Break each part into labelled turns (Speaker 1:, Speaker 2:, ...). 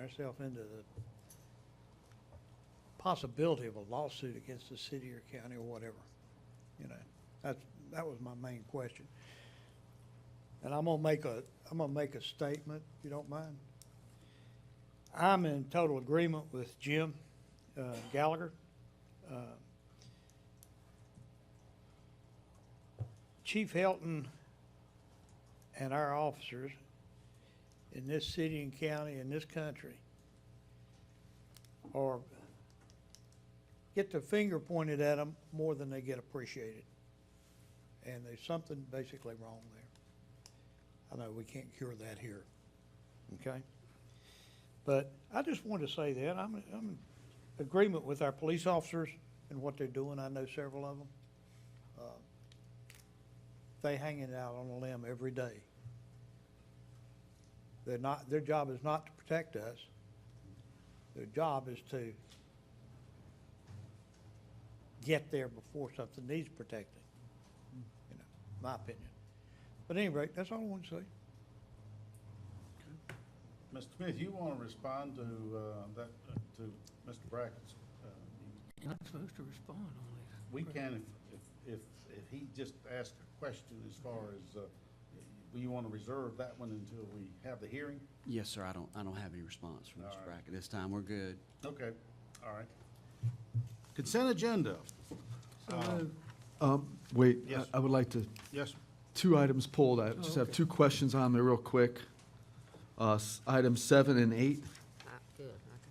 Speaker 1: ourselves into the possibility of a lawsuit against the city or county or whatever, you know? That's, that was my main question. And I'm gonna make a, I'm gonna make a statement, if you don't mind. I'm in total agreement with Jim uh, Gallagher. Uh, Chief Helton and our officers in this city and county, in this country, or get their finger pointed at them more than they get appreciated. And there's something basically wrong there. I know we can't cure that here, okay? But I just wanted to say that, I'm, I'm in agreement with our police officers and what they're doing, I know several of them. They hanging out on a limb every day. They're not, their job is not to protect us. Their job is to get there before something needs protecting, you know, my opinion. But anyway, that's all I want to say.
Speaker 2: Mr. Smith, you want to respond to uh, that, to Mr. Brackett's? uh,
Speaker 3: You're not supposed to respond on these.
Speaker 2: We can, if, if, if if he just asked a question as far as, uh, you want to reserve that one until we have the hearing?
Speaker 4: Yes, sir, I don't, I don't have any response from
Speaker 2: All
Speaker 4: Mr.
Speaker 2: right.
Speaker 4: Brackett. This time, we're good.
Speaker 2: Okay, all right. Consent agenda. Uh,
Speaker 5: Um, Wait, I-
Speaker 2: Yes.
Speaker 5: I would like to,
Speaker 2: Yes,
Speaker 5: two items pulled, I just have two questions on there real quick. Uh, s- Item seven and eight.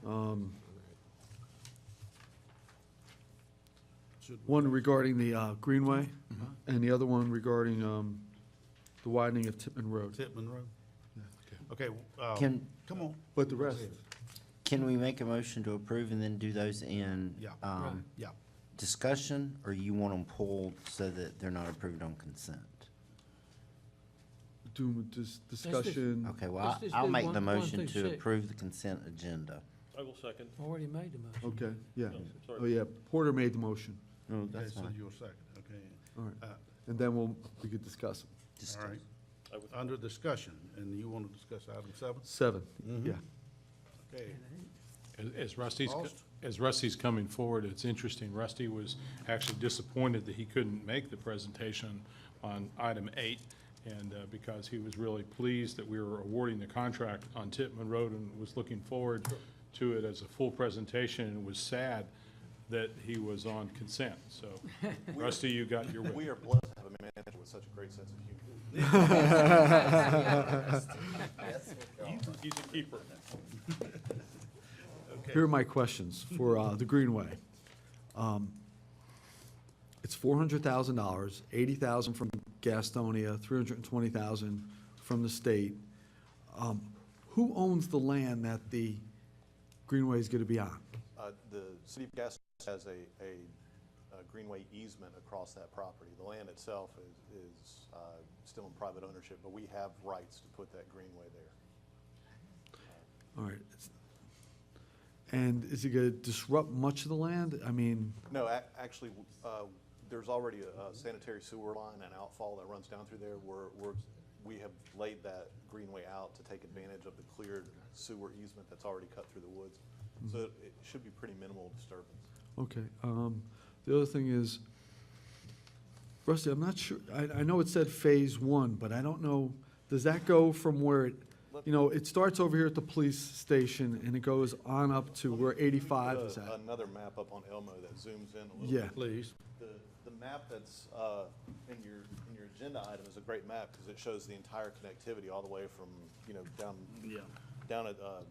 Speaker 5: Um, One regarding the uh, Greenway, and the other one regarding um, the widening of Tippman Road.
Speaker 2: Titman Road. Okay,
Speaker 3: Oh.
Speaker 2: uh,
Speaker 6: Can-
Speaker 2: come on.
Speaker 5: But the rest,
Speaker 6: Can we make a motion to approve and then do those in?
Speaker 2: Yeah.
Speaker 6: um,
Speaker 3: Right.
Speaker 2: Yeah.
Speaker 6: Discussion, or you want them pulled so that they're not approved on consent?
Speaker 5: do, dis- discussion,
Speaker 6: Okay,
Speaker 3: Mm. Let's
Speaker 6: well, I-
Speaker 3: just
Speaker 6: I'll
Speaker 3: do
Speaker 6: make
Speaker 3: one-
Speaker 6: the
Speaker 3: one
Speaker 6: motion
Speaker 3: through
Speaker 6: to
Speaker 3: six.
Speaker 6: approve the consent agenda.
Speaker 7: I will second.
Speaker 3: Already made the motion.
Speaker 5: okay, yeah.
Speaker 7: No, sorry.
Speaker 5: Oh, yeah, Porter made the motion,
Speaker 6: No,
Speaker 2: Okay,
Speaker 6: that's
Speaker 2: so
Speaker 6: fine.
Speaker 2: you're second, okay.
Speaker 5: all right,
Speaker 2: Uh,
Speaker 5: and then we'll, we could discuss it.
Speaker 2: All
Speaker 6: Discuss.
Speaker 2: right,
Speaker 7: I would-
Speaker 2: under discussion, and you want to discuss item seven?
Speaker 5: Seven, yeah.
Speaker 2: Okay.
Speaker 8: As- As Rusty's, co-
Speaker 2: Lost?
Speaker 8: as Rusty's coming forward, it's interesting, Rusty was actually disappointed that he couldn't make the presentation on item eight, and uh, because he was really pleased that we were awarding the contract on Tittman Road and was looking forward to it as a full presentation, and was sad that he was on consent, so Rusty, you got your
Speaker 9: We
Speaker 8: wish.
Speaker 9: are blessed to have a manager with such a great sense of humor.
Speaker 8: He's a- He's a keeper.
Speaker 5: Here are my questions for uh, the Greenway. Um, It's four hundred thousand dollars, eighty thousand from Gastonia, three hundred and twenty thousand from the state. Um, Who owns the land that the Greenway is gonna be on?
Speaker 9: Uh, The city of Gastonia has a, a a greenway easement across that property. The land itself is, is uh, still in private ownership, but we have rights to put that greenway there.
Speaker 5: All right. it's- And is it gonna disrupt much of the land? I mean,
Speaker 9: No, ac- actually, uh, there's already a sanitary sewer line and outfall that runs down through there. We're, we're, we have laid that greenway out to take advantage of the cleared sewer easement that's already cut through the woods. So it should be pretty minimal disturbance.
Speaker 5: Okay, um, the other thing is, Rusty, I'm not sure, I, I know it said phase one, but I don't know, does that go from where it, you know, it starts over here at the police station and it goes on up to where eighty-five is
Speaker 9: Put a-
Speaker 5: at?
Speaker 9: uh, Another map up on Elmo that zooms in a little bit.
Speaker 5: Yeah.
Speaker 2: Please.
Speaker 9: The, the map that's uh, in your, in your agenda item is a great map because it shows the entire connectivity all the way from, you know, down,
Speaker 2: Yeah.
Speaker 9: down at, uh,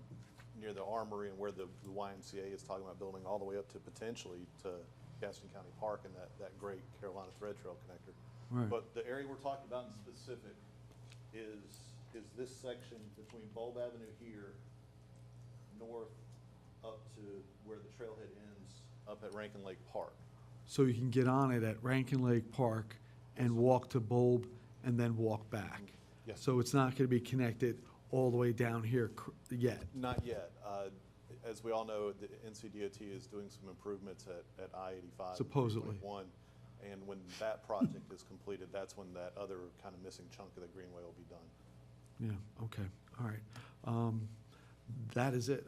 Speaker 9: near the armory and where the the YMCA is talking about building, all the way up to potentially to Gaston County Park and that, that great Carolina Thread Trail connector.
Speaker 5: Right.
Speaker 9: But the area we're talking about in specific is, is this section between Bulb Avenue here north up to where the trailhead ends up at Rankin Lake Park.
Speaker 5: So you can get on it at Rankin Lake Park and walk to Bulb and then walk back?
Speaker 9: Yes.
Speaker 5: So it's not gonna be connected all the way down here cr- yet?
Speaker 9: Not yet. Uh, As we all know, the NCDOT is doing some improvements at, at I-85.
Speaker 5: Supposedly.
Speaker 9: One, and when that project is completed, that's when that other kind of missing chunk of the greenway will be done.
Speaker 5: Yeah, okay, all right. Um, that is it,